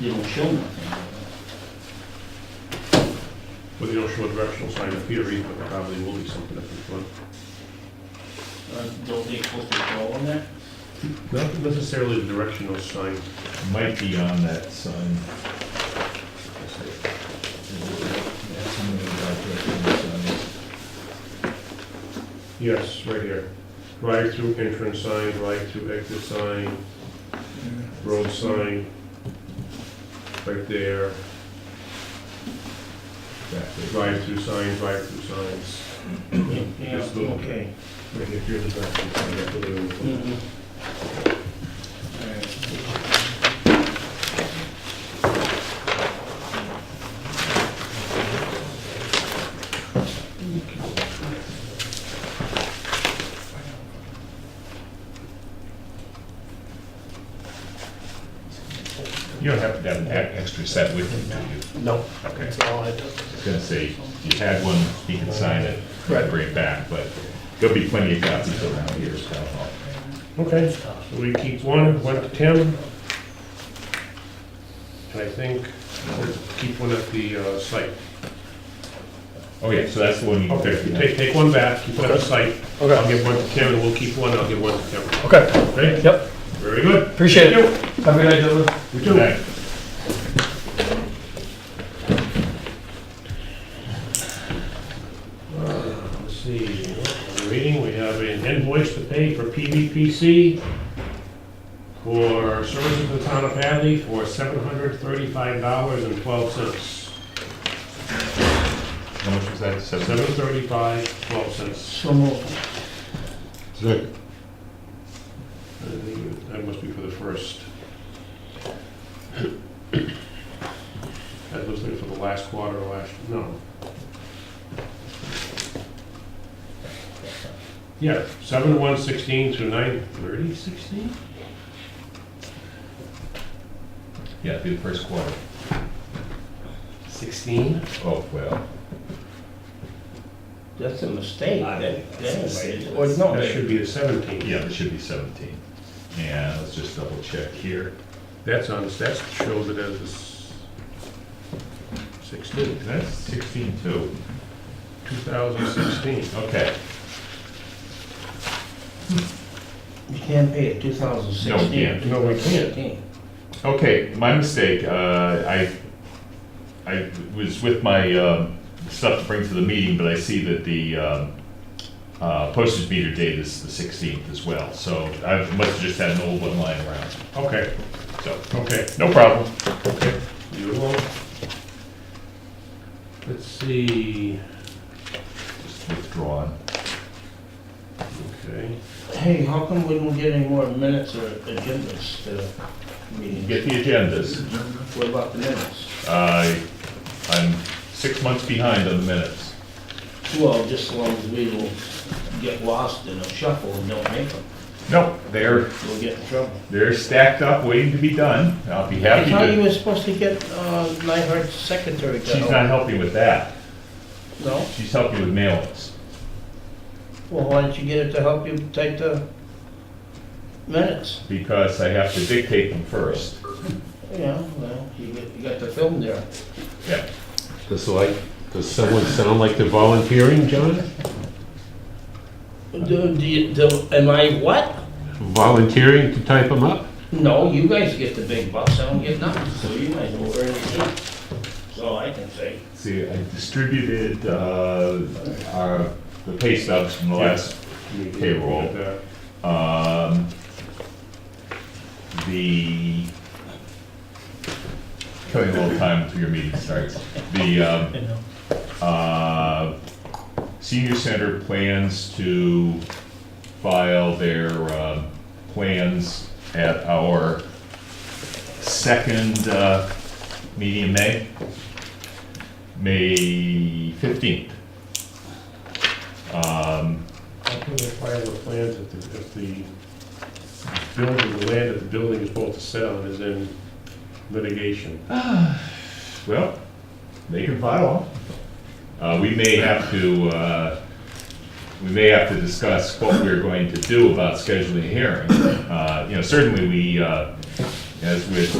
they don't show nothing. Well, they don't show a directional sign up here either, but probably will be something up in front. Uh, Don't they supposed to draw on that? Not necessarily the directional sign. Might be on that sign. Yes, right here. Drive-through entrance sign, drive-through exit sign, road sign. Right there, drive-through sign, drive-through signs. Yeah, This little- okay. Right here, here's the drive-through sign, that's what they were looking Mhm. All right. You don't have to have an e- extra set with you, do you? No, Okay, that's all I took. I was gonna say, if you had one, you can sign it, bring it back, but there'll be plenty of copies around here, so. for. Okay, so we keep one, one to ten. And I think we'll keep one at the uh, site. Oh, yeah, so that's the one you can Okay, pick. yeah. take, take one back, keep one at the site. I'll Okay, give one to Tim, and we'll keep one, I'll give one to Kevin. okay, Okay? yep, Very good. appreciate Thank you. it. Have a good night, gentlemen. We Good do. night. Uh, Let's see, we're reading, we have an invoice to pay for PVPC for services to the town of Hadley for seven hundred thirty-five dollars and twelve cents. How much was that, seven? Seven thirty-five, twelve cents. So moved. That must be for the first. That looks like for the last quarter, or last, no. Yeah, seven one sixteen through nine thirty sixteen? Yeah, it'd be the first quarter. Sixteen? Oh, well, That's a mistake. I- That, that that's is, right. or no, That should be the seventeen. yeah, it should be seventeen. And let's just double check here. That's on, that shows it as a s- sixteen, That's sixteen two. two thousand sixteen. Okay, you can't pay it, 2016. No, yeah. No, we can't. okay, my mistake, uh, I, I was with my, um, stuff to bring to the meeting, but I see that the, um, uh, postage meter date is the sixteenth as well, so I must have just had an old one lying around, Okay, so, okay. no problem. You alone? Let's see, Just withdrawn. okay. Hey, how come we don't get any more minutes or agendas to meetings? Get the agendas. What about the minutes? I, I'm six months behind on the minutes. Well, just as long as we will get lost in a shuffle and don't make them, No, they're, we'll get in trouble. they're stacked up, waiting to be done. I'll be I happy thought you to, were supposed to get uh, Nyhart's secretary to she's help. not helping with that. No? She's helping with mailings. Well, why don't you get it to help you take the minutes? because I have to dictate them first. Yeah, well, you got- you got the film there. Yeah. Does like, does someone sound like they're volunteering, John? Do, do you, do, am I what? Volunteering to type them up? No, you guys get the big bucks, I don't get nothing, so you might as well earn it. too. That's all I can say. See, I distributed uh, our, the pay stubs from the last, Payroll. um, the, kill you a little time until your meeting starts. The, um, uh, senior center plans to file their um, plans at our second uh, meeting in May, May 15th. Um, How can they file the plans if the, if the building, the land that the building is supposed to sit on is in litigation? Well, they can file them. Uh, we may have to, uh, we may have to discuss what we're going to do about scheduling a hearing. Uh, you know, certainly we, uh, as with